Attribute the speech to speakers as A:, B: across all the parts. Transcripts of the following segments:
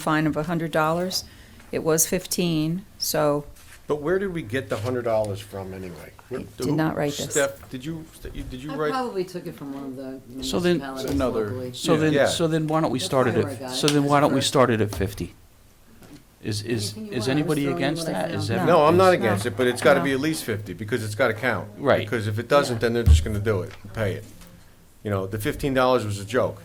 A: fine of $100. It was 15, so
B: But where did we get the hundred dollars from anyway?
A: I did not write this.
C: Steph, did you, did you
D: I
C: write?
D: probably took it from one of the
E: So then-
D: municipalities
C: Another-
D: locally.
E: So
C: Yeah.
E: then, so then why don't we
D: That's
E: start it
D: fine, I
E: at,
D: got it.
E: so then why don't we
D: That's
E: start it at 50? Is, is,
D: Anything you
E: is
D: want. I was
E: anybody
D: throwing
E: against
D: what I
E: that? Is
D: found.
E: that-
B: No, I'm not
E: is-
B: against it, but it's gotta be at least fifty, because it's gotta count.
E: Right.
B: Because if it doesn't, then they're just gonna do it, and pay it. You know, the fifteen dollars was a joke.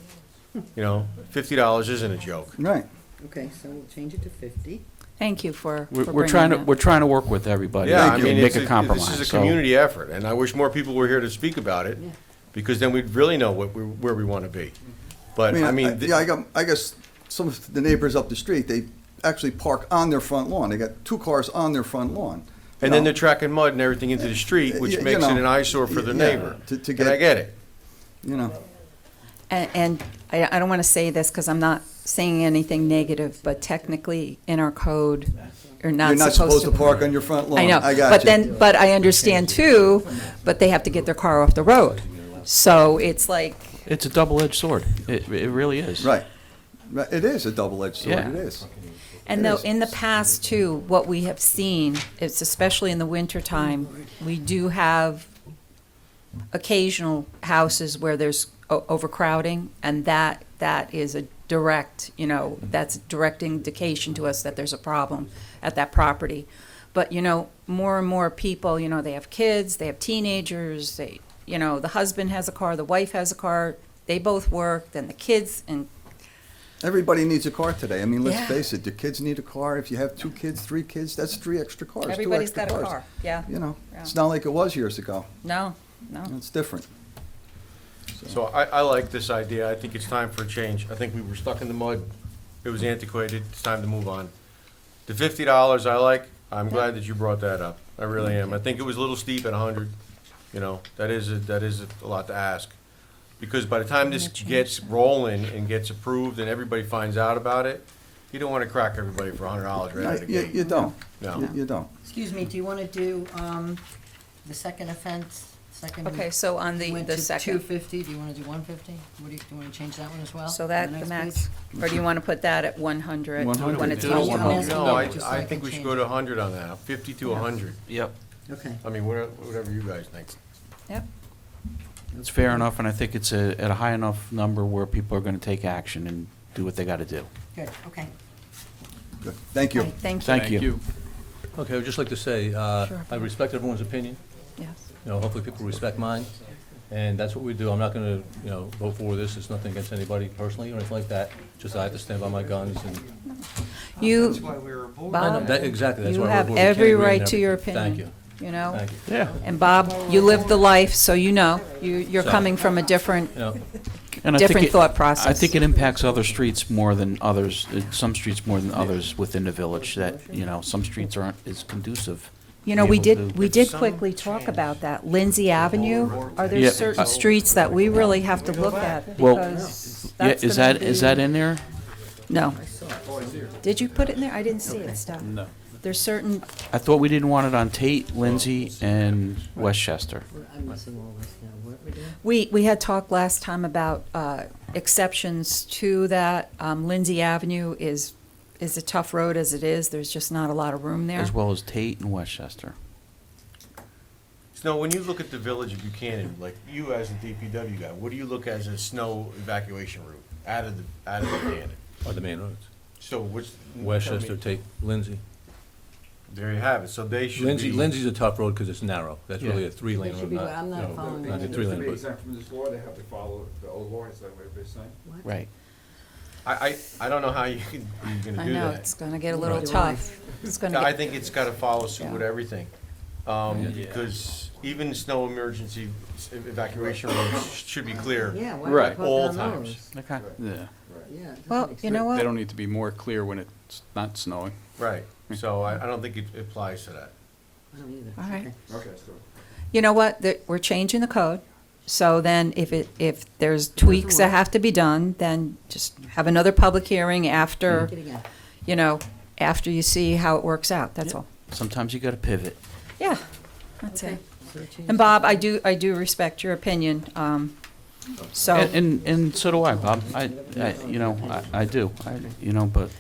B: You know, fifty dollars isn't a joke.
F: Right.
D: Okay, so we'll change it to fifty.
A: thank you for for
E: We're,
A: bringing
E: we're trying to,
A: that.
E: we're trying to work with everybody
B: Yeah, I
E: and
B: mean,
E: make
B: it's,
E: a
B: a-
E: compromise.
B: this is a
E: so-
B: community effort, and I wish more people were here to speak about it,
D: Yeah.
B: because then we'd really know what, we- where we wanna be. But, I mean, th-
F: yeah, I got. I guess some of the neighbors up the street they actually park on their front lawn. They got two cars on their front lawn.
B: and then
F: Now,
B: they're tracking mud and everything into the street, which
F: You
B: makes it
F: know,
B: an eyesore for the
F: yeah,
B: neighbor.
F: to- to
B: And
F: get-
B: I get it.
F: you know.
A: And- And I I don't want to say this because I'm not saying anything negative, but technically, in our code, you're
F: You're
A: not
F: not
A: supposed to...
F: park on your front lawn.
A: I know.
F: I got
A: But
F: you.
A: then, but I understand too, but they have to get their car off the road. So it's like,
E: It's a double-edged sword. It, it really is.
F: right. Right, It is a double-edged sword.
E: Yeah.
F: It is.
A: And though, in the past too, what we have seen, it's especially in the wintertime, we do have occasional houses where there's o- overcrowding, and that, that is a direct, you know, that's a direct indication to us that there's a problem at that property. But, you know, more and more people, you know, they have kids, they have teenagers, they, you know, the husband has a car, the wife has a car, they both work, then the kids, and
F: Everybody needs a car today. I mean, let's
A: Yeah.
F: face it. The kids need a car. If you have two kids, three kids, that's three extra cars. two
A: everybody's
F: extra
A: got a
F: cars.
A: car, yeah.
F: You know,
A: Yeah. Oh.
F: it's not like it was years ago.
A: No, no.
F: It's different.
B: So I, I like this idea. I think it's time for a change. I think we were stuck in the mud. It was antiquated. It's time to move on. The fifty dollars I like. I'm glad that you brought that up. I really am. I think it was a little steep at a hundred. You know, that is, a- that is a lot to ask. Because by the time this gets rolling and gets approved and everybody finds out about it, you don't wanna crack everybody for a hundred dollars right out of the
F: you, you
B: gate.
F: don't.
B: No.
F: You, you don't.
D: Excuse me, do you wanna do, um, the second offense, second?
A: Okay, so on the, the
D: Two
A: second,
D: fifty, do you wanna do one fifty? What do you, do you wanna change that one as well?
A: so that, the
D: next
A: max,
D: page?
A: or do you want to put that at one hundred
E: 100.
A: when it's
E: Do it at
A: all
D: 100.
A: over?
B: No, I,
D: Just
B: I
D: like
B: think
D: a
B: we should
D: change.
B: go to a hundred on that, fifty to a hundred.
E: Yep,
D: Okay,
B: I mean, whatever, whatever you guys think.
A: Yep,
E: it's fair enough, and I think it's a, at a high enough number where people are gonna take action and do what they gotta do.
D: good, okay.
F: Good. Thank you.
A: Okay, thank you.
E: Thank you.
G: Okay, I'd just like to say, uh,
A: Sure.
G: I respect everyone's opinion,
A: Yes.
G: you know, hopefully people respect mine, and that's what we do. I'm not gonna, you know, vote for this, it's nothing against anybody personally or anything like that, just I have to stand by my guns and.
A: You,
G: I know,
A: Bob,
G: that- Exactly, that's
A: you
G: why we're
A: have
G: voting. Can't
A: every
G: agree on
A: right to your
G: everything.
A: opinion, you
D: Oh.
A: know?
G: Thank you,
E: Yeah,
A: And Bob, you live the life, so you know, you, you're
G: So-
A: coming from a different,
G: thank you. You know,
E: And I think
A: different
E: it-
A: thought process.
E: I think it impacts other streets more than others, uh, some streets more than others within the village, that, you know, some streets aren't as conducive.
A: You know,
E: be
A: we
E: able to-
A: did, we did
B: some
A: quickly talk about that. Lindsay Avenue, are there
E: Yeah,
A: certain
E: uh,
A: streets that we really have to look at?
E: Well,
A: Because
E: Yeah,
A: that's
E: is
A: gonna
E: that, is that
A: be-
E: in there?
A: No. Did you put it in there? I didn't see it, Steph. No. There's certain,
E: I thought we didn't want it on Tate, Lindsay, and Westchester.
D: We're- I'm missing all this now, what are we doing?
A: we, we had talked last time about uh, exceptions to that. Um, Lindsay Avenue is, is a tough road as it is. There's just not a lot of room there.
E: as well as Tate and Westchester.
B: Snow, when you look at the village of Buchanan, like you as a DPW guy, what do you look as a snow evacuation route out of the, out of Buchanan?
G: on the main roads,
B: So which?
G: Westchester, take Lindsay.
B: There you have it, so they should be.
G: Lindsay, Lindsay's a tough road because it's narrow, that's really
E: Yeah.
G: a three-lane
D: They should
G: road,
D: be-
G: not,
D: I'm not
G: you know,
D: following
G: not a
D: that.
G: three-lane
H: To be
G: road.
H: exempt from this law, they have to follow the old law, is that what they're saying?
D: What?
E: Right.
B: I, I, I don't know how you can, you're gonna
A: I
B: do
A: know,
B: that.
A: it's gonna get a little
D: Right.
A: tough. It's gonna
B: I
A: get,
B: think it's gotta follow suit with
A: Yeah.
B: everything. Um,
G: Yeah.
B: because even snow emergency s- evacuation routes should be clear.
D: Yeah, why
B: Right.
D: not put
B: All
D: it on
B: times.
D: those?
E: Okay.
H: Yeah.
D: Yeah. it doesn't
A: well,
D: make
A: you
D: sense.
A: know
H: They
A: what?
H: don't need to be more clear when it's not snowing.
B: Right, so I, I don't think it applies to that.
D: I don't either.
A: All right.
D: Okay.
H: Okay, so.
A: You know what? The- We're changing the code. So then if it, if there's tweaks that have to be done, then just have another public hearing after,
D: Look it again.
A: you know, after you see how it works out, that's all.
E: Sometimes you got to pivot.
A: Yeah, that's it.
D: Okay. So we change
A: And Bob, I do, I do respect your opinion, um, so,
E: And, and, and so do I, Bob. I, I, you know, I, I do, I, you know, but